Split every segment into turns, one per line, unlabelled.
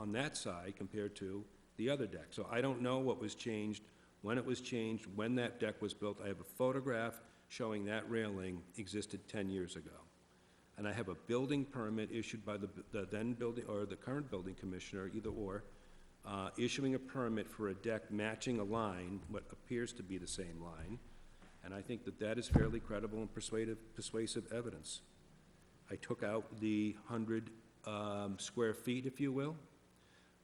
on that side compared to the other deck. So I don't know what was changed, when it was changed, when that deck was built. I have a photograph showing that railing existed 10 years ago. And I have a building permit issued by the b- the then building, or the current building commissioner, either or, uh, issuing a permit for a deck matching a line, what appears to be the same line. And I think that that is fairly credible and persuasive, persuasive evidence. I took out the 100 um, square feet, if you will,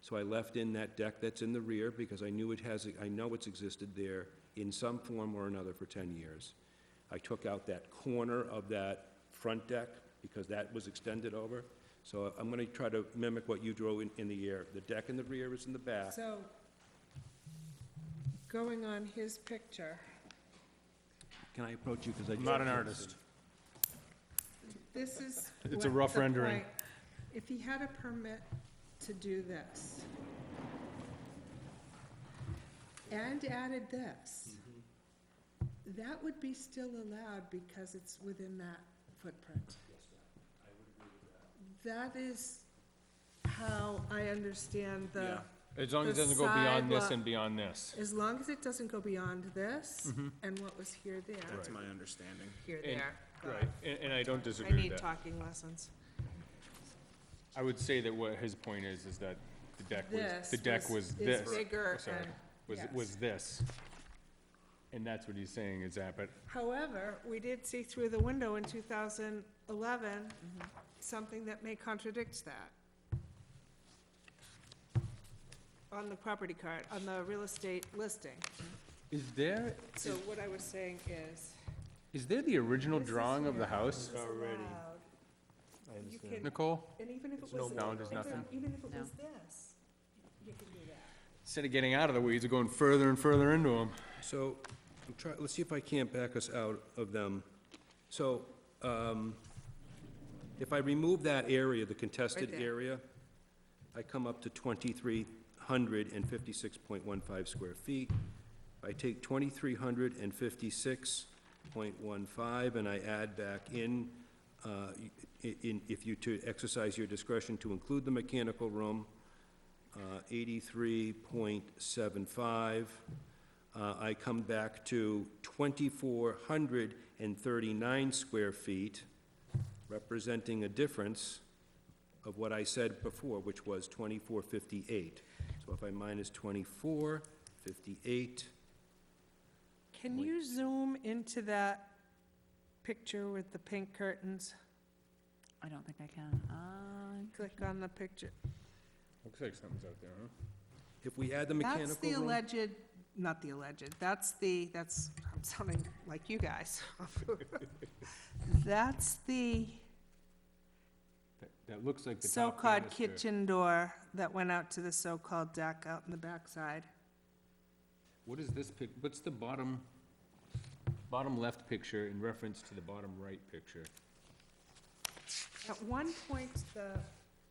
so I left in that deck that's in the rear because I knew it has, I know it's existed there in some form or another for 10 years. I took out that corner of that front deck because that was extended over. So I'm going to try to mimic what you drew in, in the air. The deck in the rear is in the back.
So, going on his picture,
Can I approach you because I...
I'm not an artist.
this is.
It's
what
a rough
the
rendering.
point- If he had a permit to do this, and added this,
Mm-hmm.
that would be still allowed because it's within that footprint. That is how I understand the,
As long as it
The
doesn't go beyond this
sidewalk-
and beyond this.
as long as it doesn't go beyond this, and what was here, there.
That's my understanding.
Here,
Mm-hmm. And-
there.
Right, and, and I don't
I
disagree
need
with that.
talking lessons.
I would say that what his point is, is that the deck was,
This
the deck
was-
was
is
this.
bigger
Oh, sorry.
and-
Was,
yes.
was this. And that's what he's saying is that, but
However, we did see through the window in 2011,
Mm-hmm.
something that may contradict that. On the property card, on the real estate listing.
is there,
So what I was saying is.
is there the original
this is
drawing of the
where
house,
it's allowed. You can,
Nicole?
and even if it
no
was.
bound, there's
even-
nothing.
Even if it
No.
was this, you can do that.
Instead of getting out of the weeds, we're going further and further into them.
So, I'm try, let's see if I can't back us out of them. So, um, if I remove that area, the contested
there.
area, I come up to twenty-three hundred and fifty-six point one five square feet. I take twenty-three hundred and fifty-six point one five, and I add back in, uh, i- in, if you to exercise your discretion to include the mechanical room, uh, 83.75. Uh, I come back to 2,439 square feet, representing a difference of what I said before, which was 2,458. So if I minus 2,458,
Can you zoom into that picture with the pink curtains?
I don't think I can. Uh,
Click on the picture.
Looks like something's out there, huh?
if we add the
That's
mechanical
the
room...
alleged, not the alleged, that's the, that's, I'm sounding like you guys. That's the
That, that looks like the top
so-called
canister.
kitchen door that went out to the so-called deck out in the backside.
What is this pic, what's the bottom, bottom left picture in reference to the bottom right picture?
At one point, the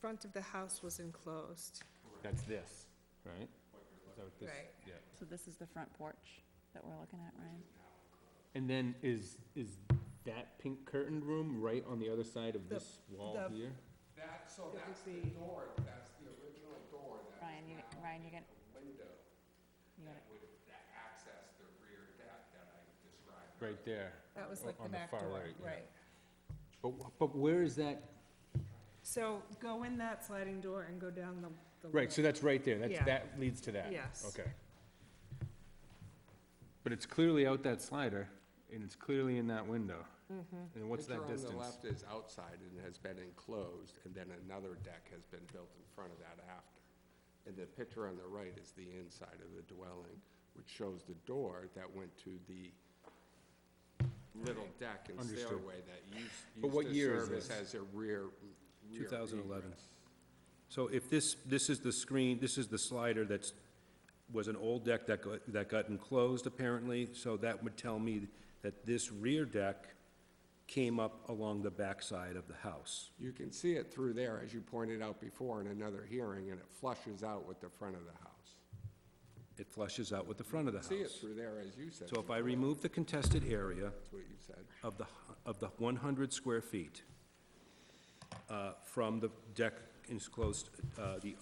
front of the house was enclosed.
That's this, right? Is that what this-
Right.
yeah.
so this is the front porch that we're looking at, Ryan?
And then is, is that pink curtained room right on the other side of
The-
this wall
the-
here?
That, so
It
that's
would
the
be-
door, that's the original door that
Ryan, you, Ryan, you got,
window
you got it.
would that access the rear deck that I described.
Right there.
That was
o-
like the
on the
back
far
door,
right, yeah.
right.
But, wh- but where is that?
So go in that sliding door and go down the, the.
Right, so
that.
that's right there.
Yeah.
That's, that leads to that.
Yes.
Okay. But it's clearly out that slider and it's clearly in that window.
Mm-hmm.
And what's that
Picture on the
distance?
left is outside and has been enclosed, and then another deck has been built in front of that after. And the picture on the right is the inside of the dwelling, which shows the door that went to the little deck and
Understood.
stairway that used,
But what
used to
year is
serve as-
this?
as a rear, rear
2011.
egress.
So if this, this is the screen, this is the slider that's, was an old deck that got, that got enclosed apparently, so that would tell me that this rear deck came up along the backside of the house.
You can see it through there, as you pointed out before in another hearing, and it flushes out with the front of the house.
It flushes out with the front of the
See it
house.
through there, as you said.
So if I remove the contested area
That's what you said.
of the, hu- of the one hundred square feet, uh, from the deck enclosed, uh, the